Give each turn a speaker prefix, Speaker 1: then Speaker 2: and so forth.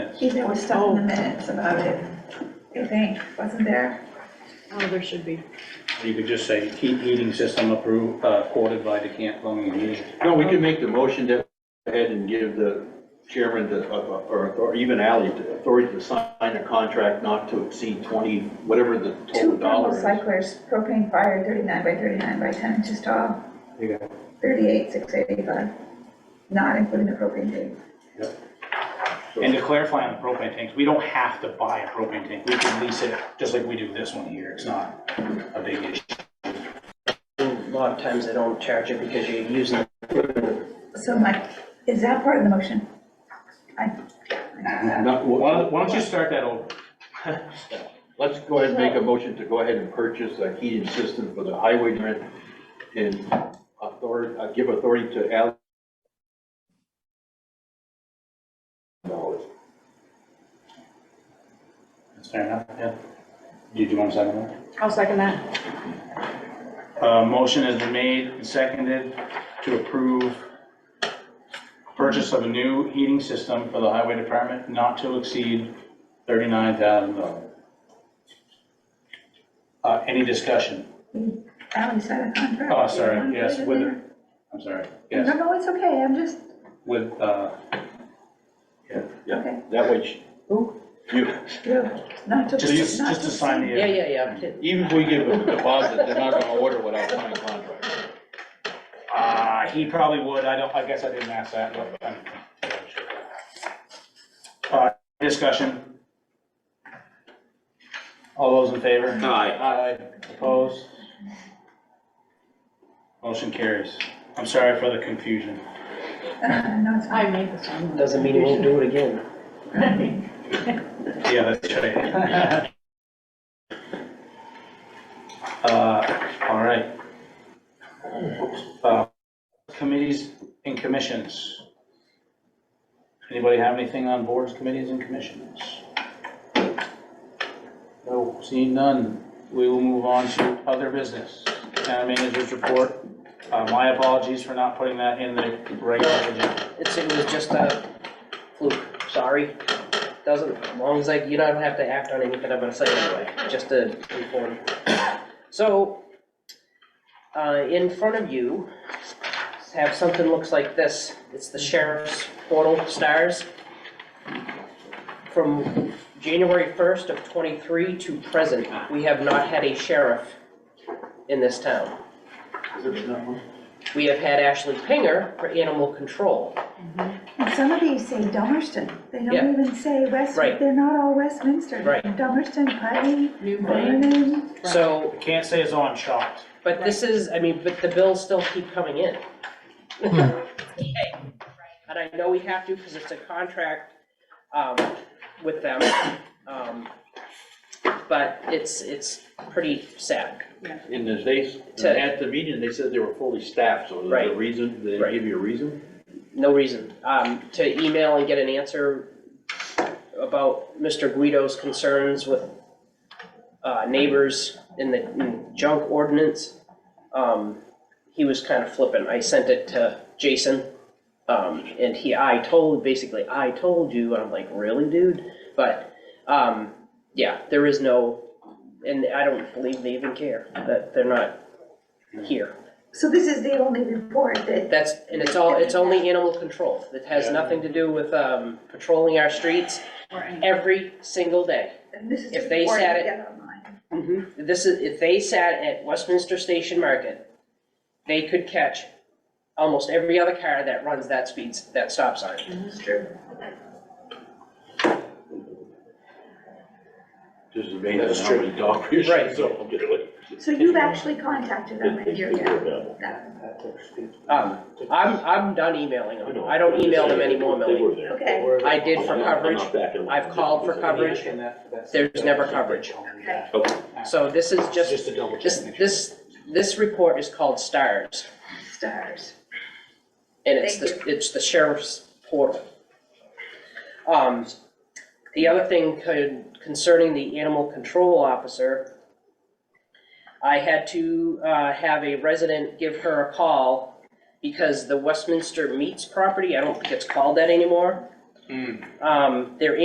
Speaker 1: Steve, there was stuff in the minutes about it, I think, wasn't there?
Speaker 2: Oh, there should be.
Speaker 3: You could just say, heat heating system approved, uh, quoted by the Camp Plumbing and Heating.
Speaker 4: No, we can make the motion to go ahead and give the chairman the, uh, or, or even Ally, the authority to sign a contract not to exceed twenty, whatever the
Speaker 3: Oh,
Speaker 4: total
Speaker 1: Two thermal
Speaker 4: dollar is.
Speaker 1: cyclers, propane fire, thirty-nine by thirty-nine by ten inches tall,
Speaker 3: You got it.
Speaker 1: thirty-eight, six eighty-five, not including the propane tank.
Speaker 3: And to clarify on the propane tanks, we don't have to buy a propane tank. We can lease it, just like we do this one here. It's not a big issue.
Speaker 5: A lot of times they don't charge it because you're using it.
Speaker 1: So Mike, is that part of the motion? I,
Speaker 4: Not-
Speaker 3: Why don't- why don't you start that over?
Speaker 4: Let's go ahead and make a motion to go ahead and purchase a heating system for the highway grant and authority, uh, give authority to Ally. Dollars.
Speaker 3: That's fair enough, yeah. Did you want to second that?
Speaker 2: I'll second that.
Speaker 3: Uh, motion has been made and seconded to approve purchase of a new heating system for the highway department not to exceed thirty-nine thousand dollars. Uh, any discussion?
Speaker 1: Ally signed a contract.
Speaker 3: Oh, sorry, yes, with, I'm sorry,
Speaker 1: No,
Speaker 3: yes,
Speaker 1: no, it's okay, I'm just,
Speaker 3: with, uh, yeah,
Speaker 1: Okay.
Speaker 4: Yeah, that way, she- you,
Speaker 1: not to.
Speaker 3: just, to-
Speaker 1: not
Speaker 3: just to sign
Speaker 5: Yeah,
Speaker 3: the,
Speaker 5: yeah, yeah.
Speaker 4: even if we give them a deposit, they're not gonna order without signing contract.
Speaker 3: uh, he probably would, I don't, I guess I didn't ask that, but I'm. Uh, discussion? All those in favor?
Speaker 4: Aye.
Speaker 3: Aye. Opposed? Motion carries. I'm sorry for the confusion.
Speaker 1: Uh, No, it's
Speaker 2: I
Speaker 1: fine.
Speaker 2: made this one.
Speaker 5: Doesn't mean he won't do it again.
Speaker 3: Yeah, that's right. Uh, all right. Uh, Committees and commissions. Anybody have anything on boards, committees, and commissions? No, seeing none, we will move on to other business. Town managers report. Uh, my apologies for not putting that in the regular agenda.
Speaker 5: It's, it was just a fluke, sorry. Doesn't, as long as like, you don't have to act on anything I'm gonna say anyway, just to inform. So, uh, in front of you, have something looks like this. It's the sheriff's portal stars. From January first of twenty-three to present, we have not had a sheriff in this town. We have had Ashley Pinger for animal control.
Speaker 1: And some of these say Dummerston, they
Speaker 5: Yeah.
Speaker 1: don't even say West,
Speaker 5: Right.
Speaker 1: they're not all Westminster.
Speaker 5: Right.
Speaker 1: Dummerston, Putney,
Speaker 2: New brain.
Speaker 1: Vernon,
Speaker 5: So,
Speaker 3: Can't say it's on shocked.
Speaker 5: but this is, I mean, but the bills still keep coming in. And I know we have to, because it's a contract, um, with them, um, but it's, it's pretty sad.
Speaker 4: In the days,
Speaker 5: To-
Speaker 4: at the meeting, they said they were fully staffed, so there's a
Speaker 5: Right.
Speaker 4: reason, they
Speaker 5: Right.
Speaker 4: give you a reason?
Speaker 5: No reason, um, to email and get an answer about Mr. Guido's concerns with, uh, neighbors in the in junk ordinance. Um, he was kind of flippant, I sent it to Jason, um, and he, I told, basically, I told you, and I'm like, really, dude? But, um, yeah, there is no, and I don't believe they even care, that they're not here.
Speaker 1: so this is the only report that,
Speaker 5: That's, and it's all, it's only animal control. It has nothing to do with um, patrolling our streets
Speaker 2: Or any-
Speaker 5: every single day.
Speaker 1: and this is the
Speaker 5: If they
Speaker 1: report
Speaker 5: said
Speaker 1: you
Speaker 5: it-
Speaker 1: get online.
Speaker 5: This is, if they sat at Westminster Station Market, they could catch almost every other car that runs that speeds, that stop sign.
Speaker 1: It's true.
Speaker 4: Just amazing
Speaker 3: That's
Speaker 4: how
Speaker 3: true.
Speaker 4: many dog years.
Speaker 5: Right.
Speaker 4: So, really.
Speaker 1: So you've actually contacted them and you're, yeah, that-
Speaker 5: Um, I'm, I'm done emailing them. I don't email them anymore, Millie.
Speaker 1: okay,
Speaker 5: I did for coverage. I've called for coverage. There's never coverage.
Speaker 1: okay.
Speaker 5: So this is
Speaker 3: Just
Speaker 5: just,
Speaker 3: to double
Speaker 5: this,
Speaker 3: check.
Speaker 5: this, this report is called STARS.
Speaker 1: Stars.
Speaker 5: And it's the,
Speaker 1: Thank
Speaker 5: it's the sheriff's portal. Um, the other thing con- concerning the animal control officer, I had to, uh, have a resident give her a call
Speaker 3: Hmm.
Speaker 5: because the Westminster Meats property, I don't think it's called that anymore. Um, their